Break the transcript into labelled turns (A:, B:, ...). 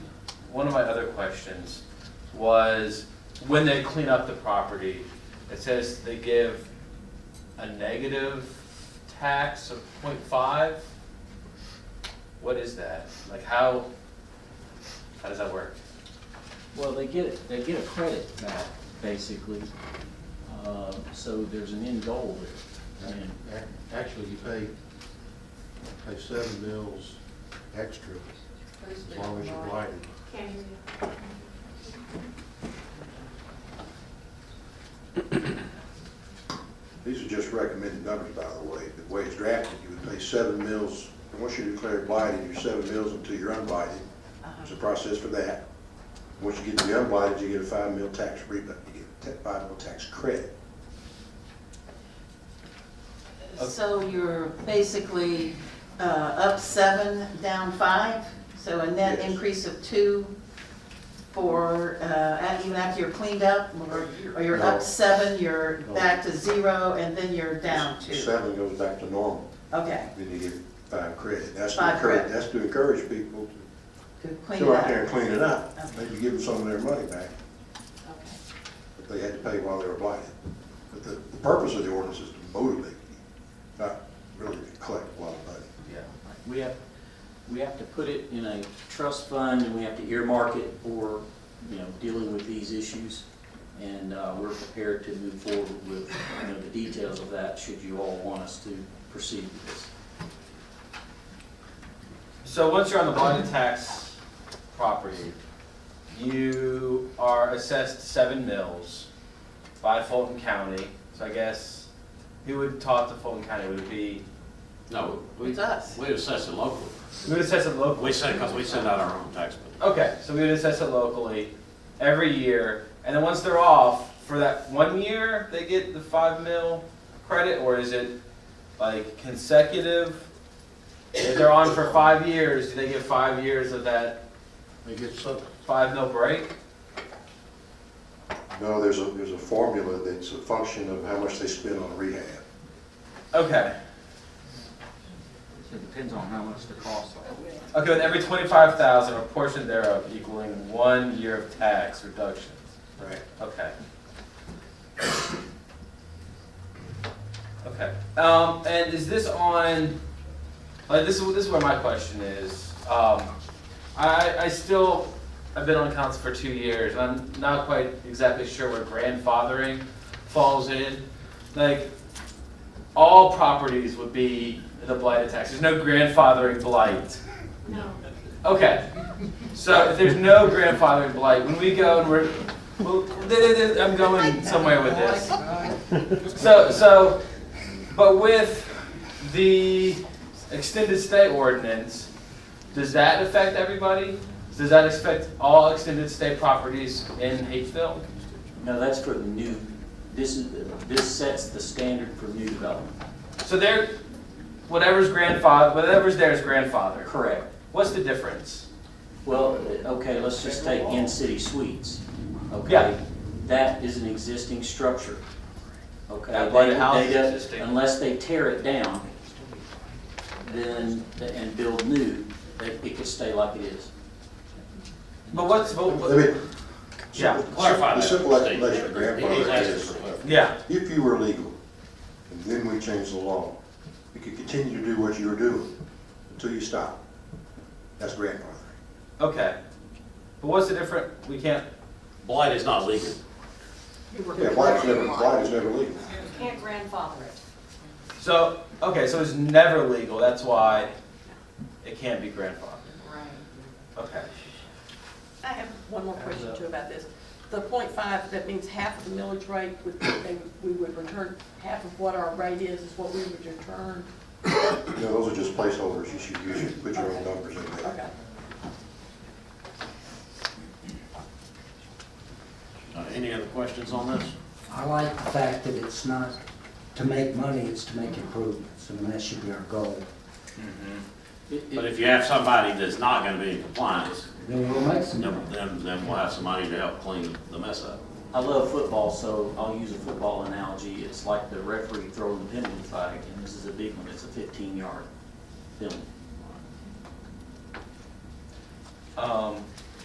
A: one of my other questions was, when they clean up the property, it says they give a negative tax of 0.5. What is that? Like, how, how does that work?
B: Well, they get, they get a credit back, basically, uh, so there's an end goal there. And
C: Ac- Actually, you pay, pay seven mills extra as long as you're blighted.
D: Can't hear you.
E: These are just recommended numbers, by the way. The way it's drafted, you would pay seven mills, and once you declare blighted, you're seven mills until you're unblighted.
F: Uh-huh.
E: There's a process for that. Once you get to be unblighted, you get a five mil tax rebate, you get a te- five mil tax credit.
F: So you're basically uh, up seven, down five, so a net
E: Yes.
F: increase of two for, uh, at- even after you're cleaned up, or or you're
E: No.
F: up seven, you're
E: No.
F: back to zero, and then you're down two.
E: Seven goes back to normal,
F: Okay,
E: then you get five credit. That's to
F: Five
E: encourage,
F: credit.
E: that's to encourage people
F: good
E: to
F: clean
E: go
F: up.
E: out there and clean it up.
F: Okay.
E: Maybe give them some of their money back
F: Okay.
E: that they had to pay while they were blighted. But the, the purpose of the ordinance is to motivate you, not really to collect a lot of money.
A: Yeah.
B: We have, we have to put it in a trust fund, and we have to earmark it for, you know, dealing with these issues. And uh, we're prepared to move forward with, you know, the details of that, should you all want us to proceed with this.
A: So once you're on the blighted tax property, you are assessed seven mills by Fulton County. So I guess who would talk to Fulton County would it be,
G: No, we,
F: It's us.
G: we assess it locally.
A: we would assess it locally.
G: We send, because we send out our own tax bill.
A: Okay, so we would assess it locally every year, and then once they're off, for that one year, they get the five mil credit, or is it like consecutive? If they're on for five years, do they get five years of that
C: They get some,
A: five mil break?
E: No, there's a, there's a formula that's a function of how much they spend on rehab.
A: Okay,
H: It depends on how much the cost are.
A: okay, with every twenty-five thousand, a portion thereof equaling one year of tax reductions,
E: Right.
A: okay. Okay, um, and is this on, like, this is, this is where my question is, um, I, I still, I've been on council for two years, and I'm not quite exactly sure where grandfathering falls in. Like, all properties would be the blight tax, there's no grandfathering blight.
D: No.
A: Okay, so if there's no grandfathering blight, when we go and we're, well, th- th- th- I'm going somewhere with this. So, so, but with the extended stay ordinance, does that affect everybody? Does that affect all extended stay properties in Hapeville?
B: No, that's for the new, this is, this sets the standard for new development.
A: So there, whatever's grandfather, whatever's there is grandfather.
B: Correct.
A: What's the difference?
B: Well, okay, let's just take in-city suites, okay?
A: Yeah.
B: That is an existing structure, okay?
A: That blighted
B: They-
A: house
B: they
A: is
B: don't-
A: existing.
B: Unless they tear it down, then, and build new, it it could stay like it is.
A: But what's, but,
E: I mean,
A: what- yeah,
G: Clarify
E: the
G: that,
E: simple
G: Steve.
E: explanation of
G: He's
E: grandfathering
G: asking
E: is,
G: for it.
A: yeah,
E: if you were legal, and then we changed the law, you could continue to do what you were doing until you stop. That's grandfathering.
A: okay. But what's the difference, we can't,
G: Blight is not legal.
E: Yeah, blight is never, blight is never legal.
D: You can't grandfather it.
A: So, okay, so it's never legal, that's why it can't be grandfathered.
D: Right.
A: Okay.
I: I have one more question too about this. The point five, that means half of the millage rate, would- they- we would return, half of what our rate is, is what we would return.
E: You know, those are just placeholders. You should, you should put your own numbers in there.
I: Okay.
G: Uh, Any other questions on this?
H: I like the fact that it's not to make money, it's to make improvements, and that should be our goal.
B: It- it-
G: But if you have somebody that's not gonna be in compliance,
H: Then we'll make some
G: then,
H: money.
G: then then we'll have somebody to help clean the mess up.
B: I love football, so I'll use a football analogy. It's like the referee throwing the penalty flag, and this is a big one, it's a 15-yard penalty.
A: Um,